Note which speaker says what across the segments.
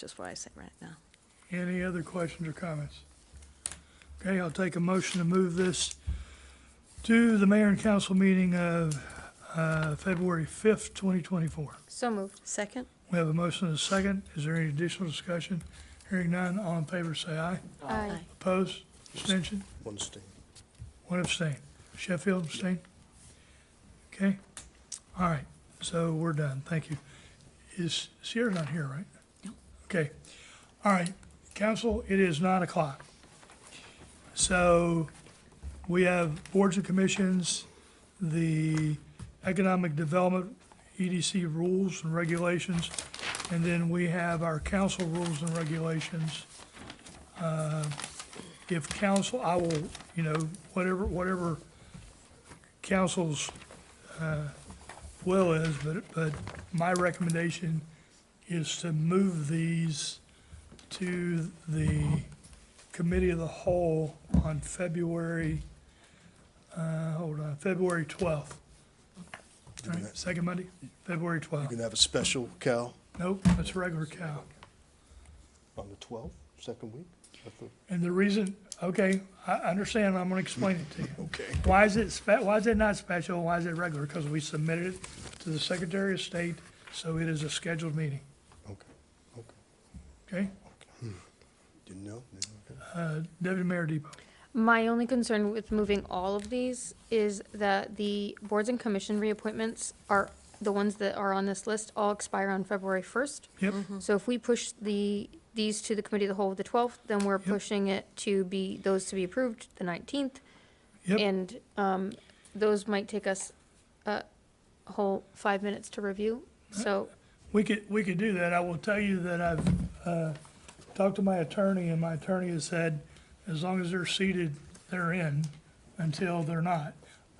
Speaker 1: just what I say right now.
Speaker 2: Any other questions or comments? Okay, I'll take a motion to move this to the mayor and council meeting of uh, February 5th, 2024.
Speaker 3: So moved.
Speaker 1: Second?
Speaker 2: We have a motion and a second. Is there any additional discussion? Hearing none, all in favor say aye.
Speaker 3: Aye.
Speaker 2: Opposed? Abstention?
Speaker 4: One stain.
Speaker 2: One abstain. Sheffield abstain? Okay, all right, so we're done, thank you. Is Sierra not here, right?
Speaker 1: No.
Speaker 2: Okay, all right, council, it is nine o'clock. So we have boards and commissions, the economic development, EDC rules and regulations, and then we have our council rules and regulations if council, I will, you know, whatever, whatever council's uh, will is, but, but my recommendation is to move these to the committee of the whole on February, uh, hold on, February 12th. All right, second Monday, February
Speaker 4: You
Speaker 2: 12th.
Speaker 4: can have a special, Cal,
Speaker 2: Nope, that's regular cow.
Speaker 4: on the 12th, second week? of the-
Speaker 2: And the reason, okay, I I understand, I'm gonna explain it to you.
Speaker 4: Okay.
Speaker 2: Why is it, spe- why is it not special, why is it regular? Because we submitted it to the Secretary of State, so it is a scheduled meeting,
Speaker 4: Okay, okay.
Speaker 2: okay?
Speaker 4: Didn't know? Didn't- okay.
Speaker 2: Uh, Deputy Mayor Depot,
Speaker 3: My only concern with moving all of these is that the boards and commission reappointments are, the ones that are on this list all expire on February first.
Speaker 2: yep,
Speaker 3: So if we push the, these to the committee of the whole of the twelfth, then we're pushing it to be, those to be approved the nineteenth.
Speaker 2: yep,
Speaker 3: And, um, those might take us a whole five minutes to review, so,
Speaker 2: we could, we could do that. I will tell you that I've uh, talked to my attorney, and my attorney has said, as long as they're seated, they're in, until they're not.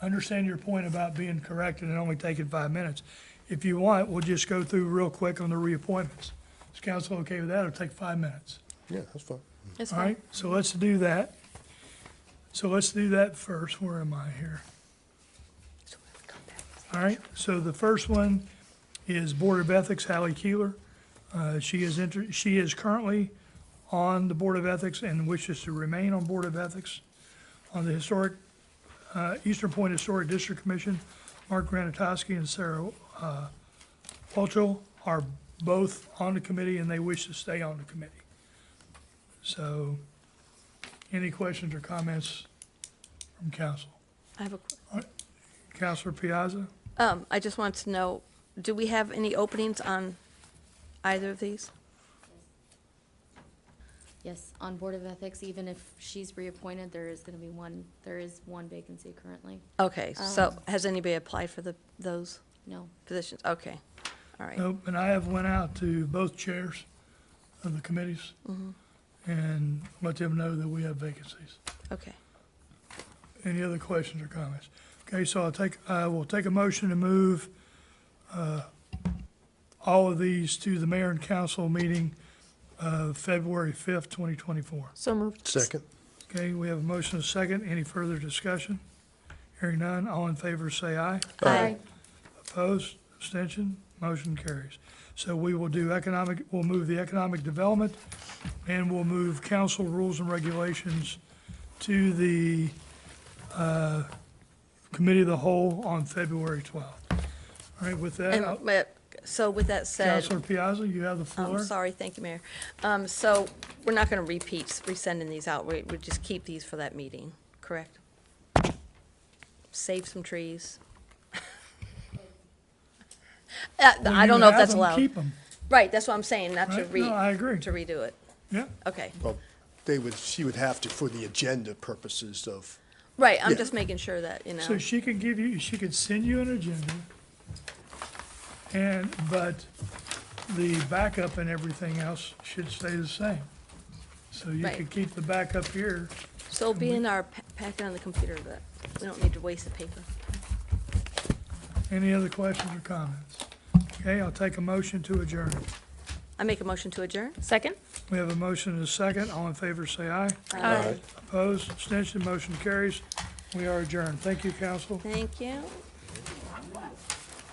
Speaker 2: I Understand your point about being corrected and only taking five minutes. If you want, we'll just go through real quick on the reappointments. Is council okay with that? It'll take five minutes.
Speaker 4: Yeah, that's fine.
Speaker 1: It's
Speaker 2: All
Speaker 1: fine.
Speaker 2: right, so let's do that. So let's do that first. Where am I here?
Speaker 1: So we'll come back.
Speaker 2: All right, so the first one is Board of Ethics, Hallie Keeler. Uh, She is, inter- she is currently on the Board of Ethics and wishes to remain on Board of Ethics. On the Historic, uh, Eastern Point Historic District Commission, Mark Granatowski and Sarah uh, Walchel are both on the committee and they wish to stay on the committee. So, any questions or comments from council?
Speaker 1: I have a, qu-
Speaker 2: Counselor Piazza?
Speaker 1: um, I just want to know, do we have any openings on either of these?
Speaker 5: Yes, on Board of Ethics, even if she's reappointed, there is gonna be one, there is one vacancy currently.
Speaker 1: Okay, so
Speaker 5: Um,
Speaker 1: has anybody applied for the, those
Speaker 5: No,
Speaker 1: positions? Okay, all right.
Speaker 2: Nope, and I have went out to both chairs of the committees and let them know that we have vacancies.
Speaker 1: Okay,
Speaker 2: Any other questions or comments? Okay, so I'll take, I will take a motion to move uh, all of these to the mayor and council meeting of February 5th, 2024.
Speaker 3: so moved.
Speaker 4: Second?
Speaker 2: Okay, we have a motion and a second. Any further discussion? Hearing none, all in favor say aye.
Speaker 3: Aye.
Speaker 2: Opposed, abstention, motion carries. So we will do economic, we'll move the economic development, and we'll move council rules and regulations to the uh, committee of the whole on February 12th. All right, with that,
Speaker 1: and,
Speaker 2: I'll-
Speaker 1: but- so with that said,
Speaker 2: Counselor Piazza, you have the
Speaker 1: I'm
Speaker 2: floor.
Speaker 1: sorry, thank you, Mayor. Um, so we're not gonna repeat, resending these out, we, we just keep these for that meeting, correct? Save some trees. Uh,
Speaker 2: Well,
Speaker 1: I
Speaker 2: you
Speaker 1: don't know if
Speaker 2: have
Speaker 1: that's
Speaker 2: them,
Speaker 1: allowed.
Speaker 2: Keep them,
Speaker 1: Right, that's what I'm saying, not to
Speaker 2: right? No, I
Speaker 1: re,
Speaker 2: agree.
Speaker 1: to redo it.
Speaker 2: Yeah,
Speaker 1: Okay,
Speaker 4: Well, they would, she would have to for the agenda purposes of,
Speaker 1: right, I'm
Speaker 4: Yeah.
Speaker 1: just making sure that, you
Speaker 2: so
Speaker 1: know,
Speaker 2: she could give you, she could send you an agenda, and, but the backup and everything else should stay the same. So you
Speaker 1: Right.
Speaker 2: could keep the backup here.
Speaker 1: so it'll be in our pa- packet on the computer, but we don't need to waste the paper.
Speaker 2: Any other questions or comments? Okay, I'll take a motion to adjourn.
Speaker 1: I make a motion to adjourn?
Speaker 3: Second?
Speaker 2: We have a motion and a second. All in favor, say aye.
Speaker 4: Aye.
Speaker 2: Opposed, abstention, motion carries. We are adjourned. Thank you, council.
Speaker 1: Thank you.